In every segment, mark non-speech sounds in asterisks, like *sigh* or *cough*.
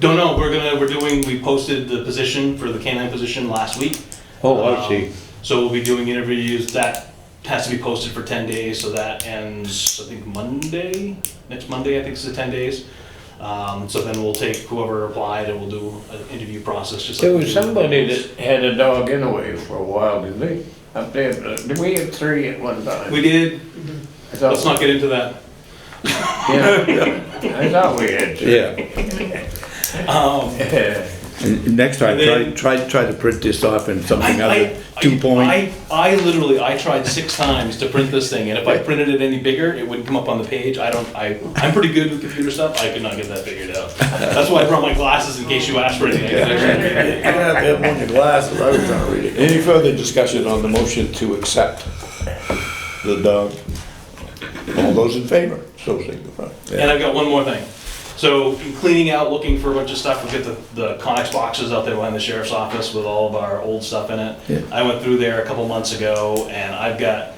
Don't know, we're gonna, we're doing, we posted the position for the canine position last week. Oh, I see. Um, So we'll be doing interviews, that has to be posted for ten days, so that ends, I think, Monday, next Monday, I think is the ten days. Um, so then we'll take whoever applied and we'll do an interview process, just like. There we was do with somebody those. that had a dog anyway for a while, did they? Up there, uh, did we have three at one time? We did, I thought- let's not get into that. *laughs* Yeah, I thought we had two. Yeah. Um, Yeah. And next time, And then- try, try, try to print this off in something I, other, I, two point. I, I literally, I tried six times to print this thing, and if I printed it any bigger, it wouldn't come up on the page. I don't, I, I'm pretty good with computer stuff, I could not get that figured out. That's why I brought my glasses in case you asked for anything. I could actually read it. You're gonna have to have one of your glasses, I was trying to read it. Any further discussion on the motion to accept the dog? All those in favor, so signify. And I've got one more thing. So in cleaning out, looking for a bunch of stuff, we get the, the Conex boxes out there behind the sheriff's office with all of our old stuff in Yeah. it. I went through there a couple months ago and I've got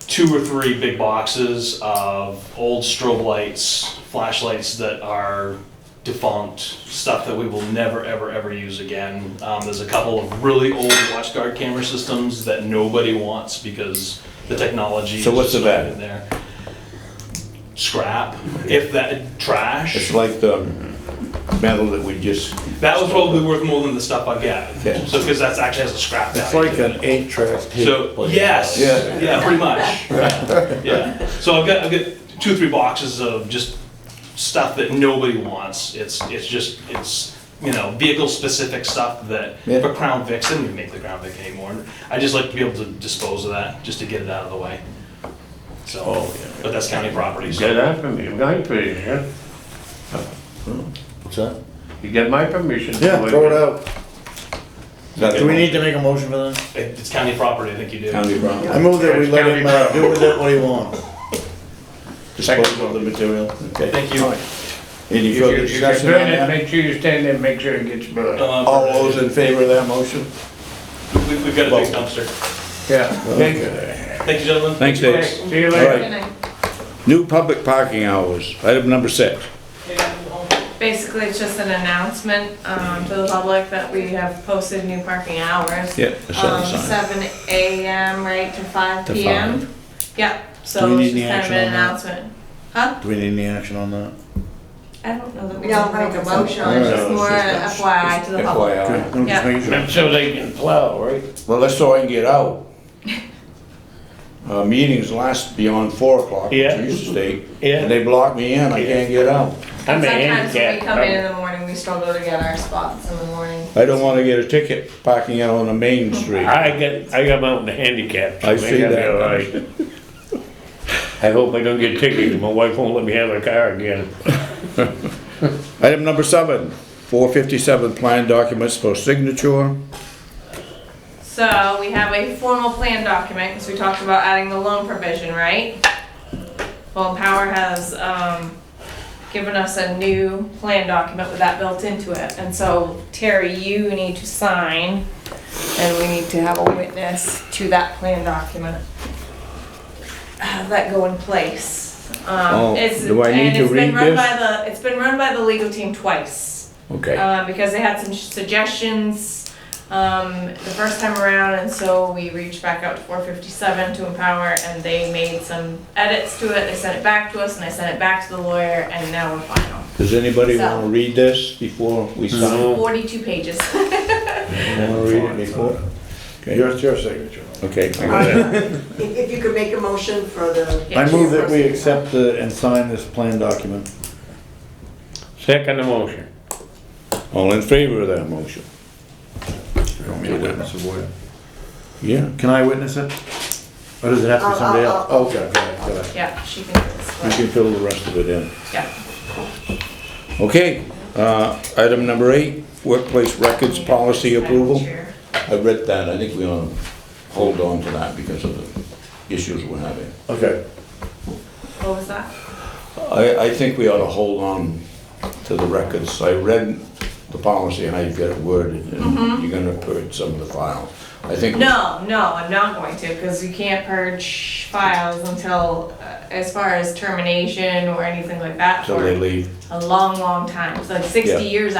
two or three big boxes of old strobe lights, flashlights that are defunct, stuff that we will never, ever, ever use again. Um, there's a couple of really old watchguard camera systems that nobody wants because the technology is So what's just the not value? in there. Scrap, if that, trash. It's like the metal that we just, That was probably worth more than the stuff I got. Yeah. So, because that's actually has a scrap It's value like to it. an eight track. So, yes, Yeah. yeah, pretty much. Yeah, *laughs* Yeah, so I've got, I've got two, or three boxes of just stuff that nobody wants. It's, it's just, it's, you know, vehicle-specific stuff that, Yeah. for Crown Vic, they don't even make the Crown Vic anymore. I just like to be able to dispose of that, just to get it out of the way. So, Oh. but that's county property, so. Get that from you, my permission. What's that? You get my permission. to Yeah, wave throw it out. Do we that need to make a motion for that? It- It's county property, I think you do. county wrong, I move that we let County him uh, property. do with it what he wants. disposal of the material, okay? Thank you. Any If further you, if you're discussion doing on it, that? make sure you stand there, and make sure it gets burned. Uh, All those in favor of that motion? we- We've got a big dumpster. Yeah. Thank you. Thank you, gentlemen. Thanks, Dave. Okay, See you All later. right, new public parking hours, item number six. Basically, it's just an announcement um, to the public that we have posted new parking hours. Yeah, a Um, seven sign. Seven AM, right, to five To PM. Yep, Do so we it's need any just kind of action on an that? announcement. Huh? Do we need any action on that? I don't know that we We don't can make a have a motion, motion. it's just No, more it's just- FYI to the public. FYI. I'm just Yeah. making sure. So they can plow, right? Well, that's so I can get *laughs* out. Uh, meetings last beyond four o'clock, which Yeah. used to stay, Yeah. and they block me in, I can't get out. I'm a Sometimes when we handicap. come in in I'm- the morning, we struggle to get our spots in the morning. I don't wanna get a ticket parking out on the main street. I got, I got mountain handicap. so I see gotta be that. all right. *laughs* I hope I don't get ticketed. My wife won't let me have a car again. Item number seven, four fifty-seven plan documents for signature. So we have a formal plan document, because we talked about adding the loan provision, right? Well, Power has, um, given us a new plan document with that built into it, and so Terry, you need to sign, and we need to have a witness to that plan document. Have that go in place. Oh, Um, it's, do I need and to it's read been run this? by the, it's been run by the legal team twice Okay, uh, because they had some suggestions um, the first time around, and so we reached back out to 457 to Empower, and they made some edits to it. They sent it back to us, and I sent it back to the lawyer, and now we're final. Does anybody So- wanna read this before we sign? 42 pages. *laughs* Wanna read it before? Your, it's your signature. Okay, I got it. If, if you could make a motion for the, I move that we accept the- and sign this plan document. Second motion. All in favor of that motion? Yeah. Can I witness it? Or does it have to be I'll- somebody I'll- else? Okay, go ahead, go ahead. Yeah, she can do this. You but- can fill the rest of it in. Yeah. okay, uh, item number eight, workplace records policy approval. Chair. I read that, I think we ought to hold on to that because of the issues we're having. Okay. What was that? I, I think we ought to hold on to the records. I read the policy, how you've got it worded, and you're gonna purge some of the files. I think. No, no, I'm not going to, because you can't purge files until uh, as far as termination or anything like that till they for leave. a long, long time. It's like 60 Yeah. years